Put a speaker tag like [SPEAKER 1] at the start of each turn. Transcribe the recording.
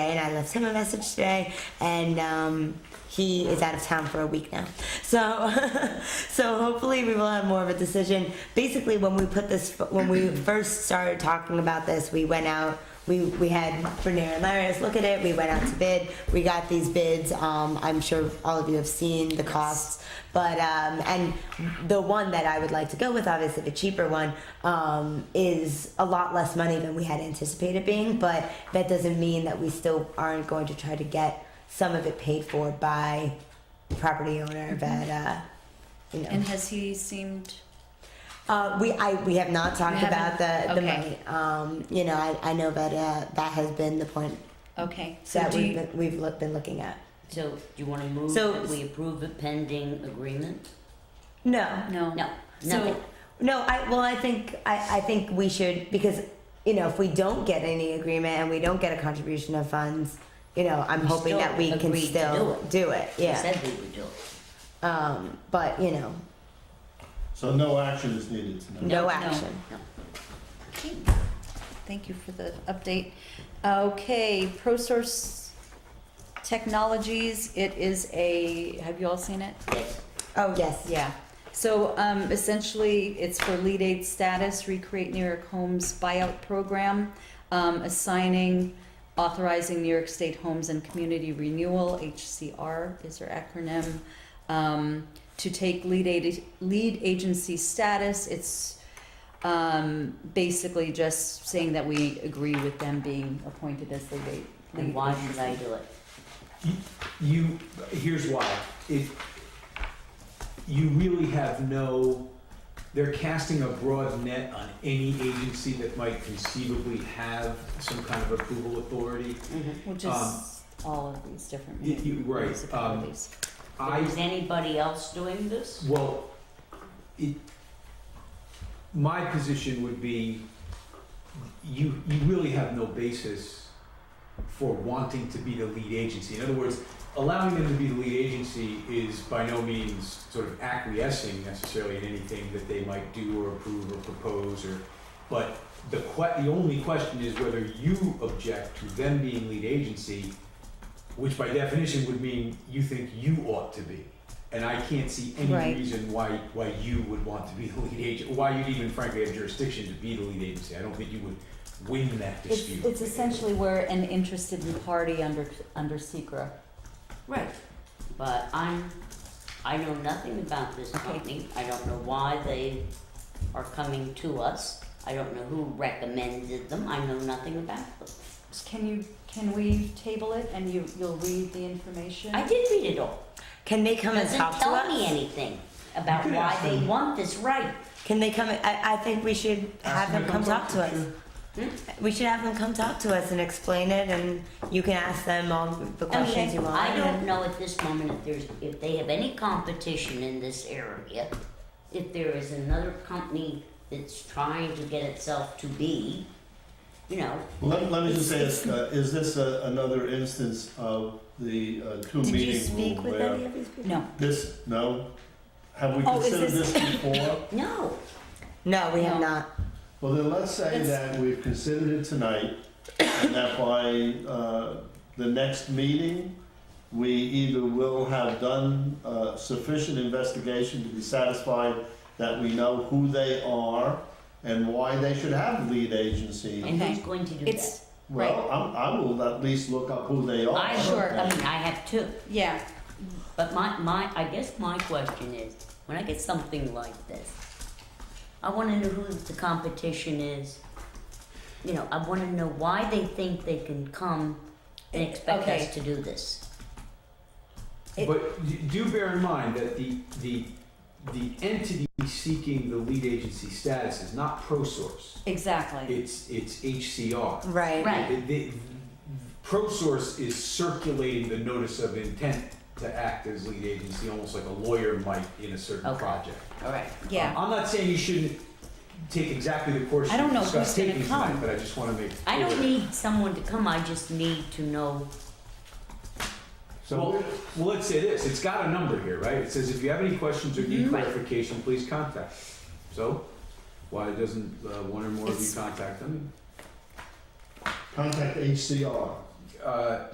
[SPEAKER 1] and I left him a message today, and um, he is out of town for a week now. So, so hopefully we will have more of a decision. Basically, when we put this, when we first started talking about this, we went out. We, we had Bernier and Larius look at it. We went out to bid. We got these bids. Um, I'm sure all of you have seen the costs, but um, and the one that I would like to go with, obviously the cheaper one, um, is a lot less money than we had anticipated being. But that doesn't mean that we still aren't going to try to get some of it paid for by the property owner that uh, you know
[SPEAKER 2] And has he seemed?
[SPEAKER 1] uh, we I we have not talked
[SPEAKER 2] You
[SPEAKER 1] about the,
[SPEAKER 2] haven't?
[SPEAKER 1] the
[SPEAKER 2] Okay.
[SPEAKER 1] money. Um, you know, I, I know that uh, that has been the point
[SPEAKER 2] Okay, so
[SPEAKER 1] that
[SPEAKER 2] do
[SPEAKER 1] we've
[SPEAKER 2] you,
[SPEAKER 1] been, we've look, been looking at.
[SPEAKER 3] So, do you want to move
[SPEAKER 1] So-
[SPEAKER 3] that we approve a pending agreement?
[SPEAKER 1] No,
[SPEAKER 2] no.
[SPEAKER 3] No, nothing.
[SPEAKER 2] So,
[SPEAKER 1] no. I well, I think I, I think we should because you know if we don't get any agreement and we don't get a contribution of funds, you know, I'm
[SPEAKER 3] We
[SPEAKER 1] hoping
[SPEAKER 3] still
[SPEAKER 1] that we can
[SPEAKER 3] agreed to
[SPEAKER 1] still do it.
[SPEAKER 3] We
[SPEAKER 1] yeah.
[SPEAKER 3] said we would do it.
[SPEAKER 1] Um, but you know,
[SPEAKER 4] So no action is needed tonight.
[SPEAKER 1] no,
[SPEAKER 3] No,
[SPEAKER 1] action.
[SPEAKER 2] okay. thank you for the update. Okay, ProSource Technologies, it is a, have you all seen it?
[SPEAKER 3] Yes.
[SPEAKER 1] Oh yes.
[SPEAKER 2] Yeah. So um, essentially, it's for lead aid status, recreate New York Homes buyout program, um, assigning, authorizing New York State Homes and Community Renewal, HCR is their acronym, um, to take lead aid, lead agency status. It's um, basically just saying that we agree with them being appointed as lead aid.
[SPEAKER 3] And why should I do it?
[SPEAKER 5] You, here's why. If you really have no, they're casting a broad net on any agency that might conceivably have some kind of approval authority.
[SPEAKER 3] Mm-hmm.
[SPEAKER 2] Which is
[SPEAKER 5] Um,
[SPEAKER 2] all of these different
[SPEAKER 5] y- you- right, um,
[SPEAKER 2] municipalities.
[SPEAKER 5] I,
[SPEAKER 3] Is anybody else doing this?
[SPEAKER 5] well, it, my position would be, you, you really have no basis for wanting to be the lead agency. In other words, allowing them to be the lead agency is by no means sort of acquiescing necessarily in anything that they might do or approve or propose or, but the que, the only question is whether you object to them being lead agency, which by definition would mean you think you ought to be. And I can't see any
[SPEAKER 2] Right.
[SPEAKER 5] reason why, why you would want to be the lead agent, why you'd even frankly have jurisdiction to be the lead agency. I don't think you would win that
[SPEAKER 2] It's,
[SPEAKER 5] dispute.
[SPEAKER 2] it's essentially we're an interested in party under, under secra.
[SPEAKER 3] Right. But I'm, I know nothing about this
[SPEAKER 2] Okay.
[SPEAKER 3] company. I don't know why they are coming to us. I don't know who recommended them. I know nothing about them.
[SPEAKER 2] Can you, can we table it and you, you'll read the information?
[SPEAKER 3] I did read it all.
[SPEAKER 1] Can they come and
[SPEAKER 3] Doesn't
[SPEAKER 1] talk
[SPEAKER 3] tell
[SPEAKER 1] to us?
[SPEAKER 3] me anything about
[SPEAKER 5] You could
[SPEAKER 3] why
[SPEAKER 5] ask
[SPEAKER 3] they
[SPEAKER 5] them.
[SPEAKER 3] want this right.
[SPEAKER 1] Can they come? I, I think we should have
[SPEAKER 5] Ask them
[SPEAKER 1] them
[SPEAKER 5] to
[SPEAKER 1] come
[SPEAKER 5] come
[SPEAKER 1] talk
[SPEAKER 5] talk
[SPEAKER 1] to
[SPEAKER 5] to
[SPEAKER 1] us.
[SPEAKER 5] you.
[SPEAKER 1] We should have them come talk to us and explain it, and you can ask them all the questions you want.
[SPEAKER 3] I don't know at this moment if there's, if they have any competition in this area, if there is another company that's trying to get itself to be, you know.
[SPEAKER 4] Let, let me just say, this, uh, is this a- another instance of the uh, two
[SPEAKER 1] Did you
[SPEAKER 4] meeting
[SPEAKER 1] speak
[SPEAKER 4] rule
[SPEAKER 1] with any
[SPEAKER 4] where
[SPEAKER 1] of these people?
[SPEAKER 2] No,
[SPEAKER 4] this, no? Have we
[SPEAKER 2] Oh, is
[SPEAKER 4] considered
[SPEAKER 2] this-
[SPEAKER 4] this before?
[SPEAKER 3] No,
[SPEAKER 1] No, we have
[SPEAKER 2] No.
[SPEAKER 1] not.
[SPEAKER 4] Well, then let's say
[SPEAKER 2] It's-
[SPEAKER 4] that we've considered it tonight and that by, uh, the next meeting, we either will have done, uh, sufficient investigation to be satisfied that we know who they are and why they should have lead agency.
[SPEAKER 3] and who's
[SPEAKER 2] Okay.
[SPEAKER 3] going to do that?
[SPEAKER 2] it's,
[SPEAKER 4] Well, I'm, I will at least look up who they are.
[SPEAKER 3] I,
[SPEAKER 2] Sure.
[SPEAKER 3] I mean, I have two,
[SPEAKER 2] yeah,
[SPEAKER 3] but my, my, I guess my question is, when I get something like this, I wanna know who the competition is. You know, I wanna know why they think they can come and expect
[SPEAKER 2] Okay.
[SPEAKER 3] us to do this.
[SPEAKER 2] It-
[SPEAKER 5] But d- do bear in mind that the, the, the entity seeking the lead agency status is not ProSource.
[SPEAKER 2] exactly.
[SPEAKER 5] It's, it's HCR.
[SPEAKER 1] Right.
[SPEAKER 3] Right.
[SPEAKER 5] The- the- ProSource is circulating the notice of intent to act as lead agency, almost like a lawyer might in a certain
[SPEAKER 3] Okay.
[SPEAKER 5] project.
[SPEAKER 3] Alright.
[SPEAKER 2] Yeah.
[SPEAKER 5] I'm not saying you shouldn't take exactly the course
[SPEAKER 2] I don't
[SPEAKER 5] you
[SPEAKER 2] know
[SPEAKER 5] discussed
[SPEAKER 2] who's gonna
[SPEAKER 5] taking tonight,
[SPEAKER 2] come.
[SPEAKER 5] but I just wanna make
[SPEAKER 3] I
[SPEAKER 5] clear.
[SPEAKER 3] don't need someone to come, I just need to know.
[SPEAKER 5] Well,
[SPEAKER 4] So,
[SPEAKER 5] well, let's say this, it's got a number here, right? It says if you have any questions or
[SPEAKER 2] Mm-hmm.
[SPEAKER 5] need clarification, please contact. So, why doesn't uh, one or more of you
[SPEAKER 2] It's-
[SPEAKER 5] contact them?
[SPEAKER 4] contact HCR.
[SPEAKER 5] uh,